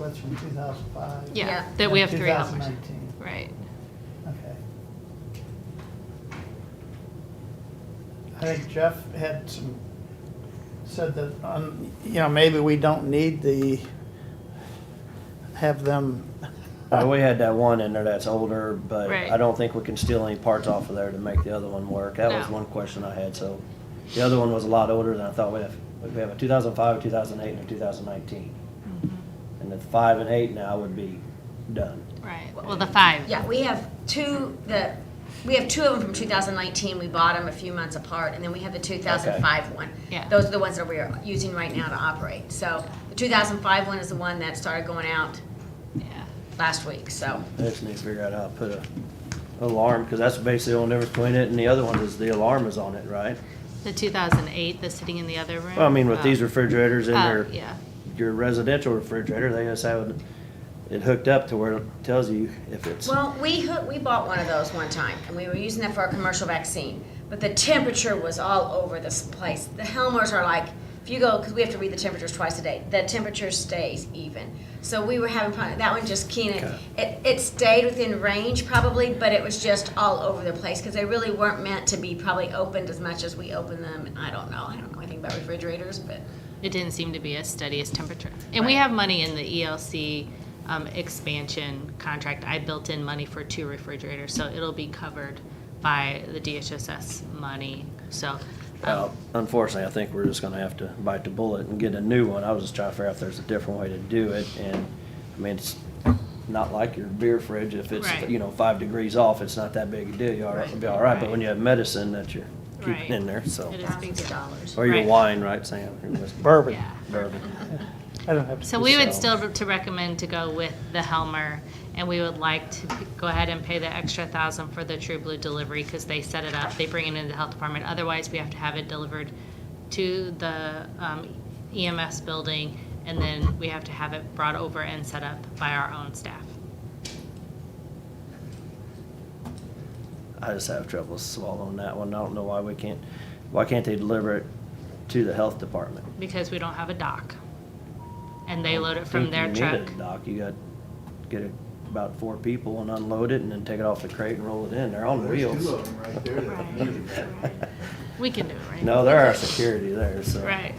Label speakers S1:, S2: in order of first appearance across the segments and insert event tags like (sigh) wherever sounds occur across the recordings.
S1: that's from 2005?
S2: Yeah,
S3: Yeah.
S2: that we have three hours.
S1: 2019,
S2: Right.
S1: okay. I think Jeff had some, said that, um, you know, maybe we don't need the, have them,
S4: Uh, we had that one in there that's older, but
S2: Right.
S4: I don't think we can steal any parts off of there to make the other one work. That was
S2: No.
S4: one question I had, so. The other one was a lot older than I thought we have. We have a two thousand five, two thousand eight, and a two thousand nineteen.
S2: Mm-hmm.
S4: And the five and eight now would be done.
S2: Right. Well, the five.
S3: Yeah, we have two, the, we have two of them from 2019, we bought them a few months apart, and then we have the 2005 one.
S2: Yeah.
S3: Those are the ones that we are using right now to operate. So the 2005 one is the one that started going out
S2: Yeah.
S3: last week, so.
S4: I just need to figure out how to put a alarm, because that's basically the only difference between it and the other one is the alarm is on it, right?
S2: The 2008, the sitting in the other room.
S4: Well, I mean, with
S2: Oh.
S4: these refrigerators in
S2: Oh,
S4: there.
S2: yeah.
S4: your residential refrigerator, they just have it- it hooked up to where it tells you if it's,
S3: Well, we, hoo- we bought one of those one time, and we were using that for our commercial vaccine, but the temperature was all over this place. The Helmers are like, if you go, because we have to read the temperatures twice a day, the temperature stays even. So we were having fun, that one just keen,
S4: Okay.
S3: it, it stayed within range probably, but it was just all over the place, because they really weren't meant to be probably opened as much as we open them. I don't know, I don't know anything about refrigerators, but.
S2: It didn't seem to be as steady as temperature. And we have money in the ELC um, expansion contract. I built in money for two refrigerators, so it'll be covered by the DHSS money. So,
S4: Well, unfortunately, I think we're just gonna have to bite the bullet and get a new one. I was just trying to figure out if there's a different way to do it, and, I mean, it's not like your beer fridge, if it's,
S2: Right.
S4: you know, five degrees off, it's not that big a deal, you'll
S3: Right.
S4: it'll be all right, but when
S2: Right.
S4: you have medicine that you're
S2: Right.
S4: keeping in there, so.
S2: It is big.
S3: Thousands of dollars.
S4: Or your
S2: Right. Mm-hmm.
S4: wine, right, Sam? Your whiskey.
S1: bourbon.
S2: yeah.
S4: Bourbon.
S1: I don't have. to
S2: So
S1: do
S2: we would
S4: So-
S2: still re- to recommend to go with the Helmer, and we would like to p- go ahead and pay the extra thousand for the True Blue delivery, because they set it up, they bring it into the health department, otherwise we have to have it delivered to the um, EMS building, and then we have to have it brought over and set up by our own staff.
S4: I just have trouble swallowing that one. I don't know why we can't, why can't they deliver it to the health department?
S2: Because we don't have a dock. And they load it from
S4: Think
S2: their
S4: you need
S2: truck.
S4: a Dock, you got, get it- about four people and unload it and then take it off the crate and roll it in. They're on
S5: There's two
S4: wheels.
S5: of them right there that
S2: Right.
S5: needed that.
S2: We can do it, right?
S4: No, there are security there, so. (laughs)
S2: Right.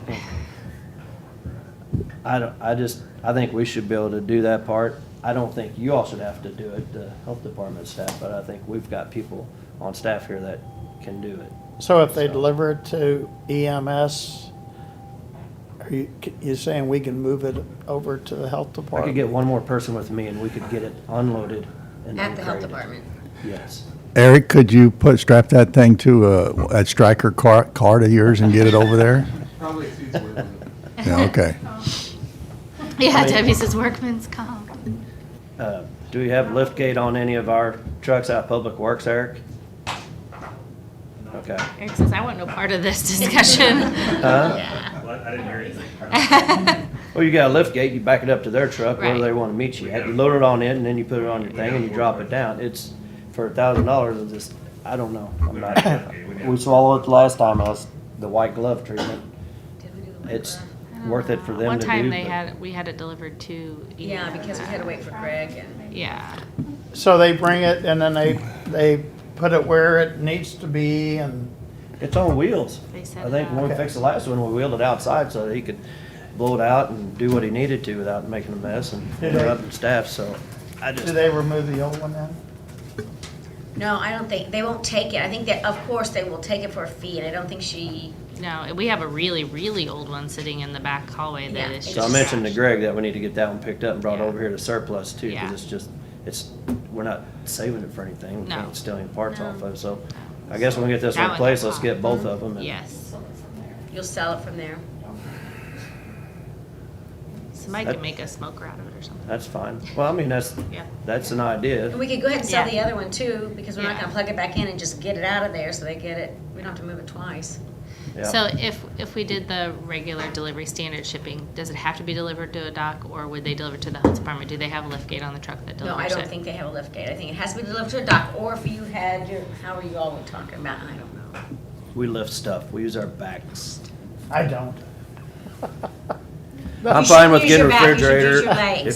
S4: I don't, I just, I think we should be able to do that part. I don't think you all should have to do it, the health department staff, but I think we've got people on staff here that can do it.
S1: So if they deliver it to EMS, are you, you saying we can move it over to the health
S4: I could
S1: department?
S4: get one more person with me and we could get it unloaded and
S3: At the health
S4: uncrated.
S3: department.
S4: Yes.
S6: Eric, could you put, strap that thing to a, that striker car, card of yours and get it over there?
S5: Probably exceeds what it was.
S6: Yeah, okay.
S2: Yeah, Debbie says workman's comp.
S4: Uh, Do we have lift gate on any of our trucks out of Public Works, Eric? Okay.
S2: Eric says, I want no part of
S4: (laughs)
S2: this discussion.
S4: Huh?
S7: What? I didn't hear anything.
S4: Well, you got a lift gate, you back it up to their truck, wherever
S2: Right.
S4: they wanna meet you at. You load it on in, and then you put it on your thing, and you drop it down. It's, for a thousand dollars, it's just, I don't know. I'm not, (coughs) we swallowed it last time, I was, the white glove treatment.
S3: Did we do the
S4: It's
S3: labor?
S4: worth it for them to do.
S2: One time they
S4: but-
S2: had, we had it delivered to.
S3: Yeah, because we had to wait for Greg and.
S2: Yeah,
S1: So they bring it and then they, they put it where it needs to be and,
S4: It's on wheels.
S2: They set
S4: I
S2: it
S4: think
S2: up.
S4: when we
S1: Okay.
S4: fixed the last one, we wheeled it outside so that he could blow it out and do what he needed to without making a mess and
S1: Did they-
S4: interrupting staff, so I
S1: do
S4: just,
S1: they remove the old one then?
S3: No, I don't think, they won't take it. I think that, of course, they will take it for a fee, and I don't think she,
S2: no, and we have a really, really old one sitting in the back hallway that
S3: Yeah,
S2: is
S3: it's
S4: so I
S2: just,
S4: mentioned to Greg that we need to get that one picked up and brought
S2: Yeah.
S4: over here to surplus too,
S2: Yeah.
S4: because it's just, it's, we're not saving it for anything. We
S2: No.
S4: can't steal any parts off of, it. so I guess when we get this
S2: That one's
S4: replaced, let's
S2: awesome.
S4: get both of them. and-
S2: yes.
S3: you'll sell it from there.
S2: Somebody could make a smoker out of it or something.
S4: That's fine. Well, I mean, that's,
S2: Yeah.
S4: that's an
S3: And
S4: idea.
S3: we could go ahead and sell
S2: Yeah.
S3: the other one too, because we're not
S2: Yeah.
S3: gonna plug it back in and just get it out of there, so they get it, we don't have to move it twice.
S4: Yeah.
S2: So if, if we did the regular delivery standard shipping, does it have to be delivered to a dock or would they deliver to the health department? Do they have a lift gate on the truck that delivers
S3: No,
S2: it?
S3: I don't think they have a lift gate. I think it has to be delivered to a dock, or if you had your, how are you all were talking about, I don't know.
S4: We lift stuff. We use our backs.
S1: I don't.
S4: I'm
S3: You should
S4: fine with
S3: use your
S4: getting
S3: back, you should use
S4: refrigerator.
S3: your legs.
S4: If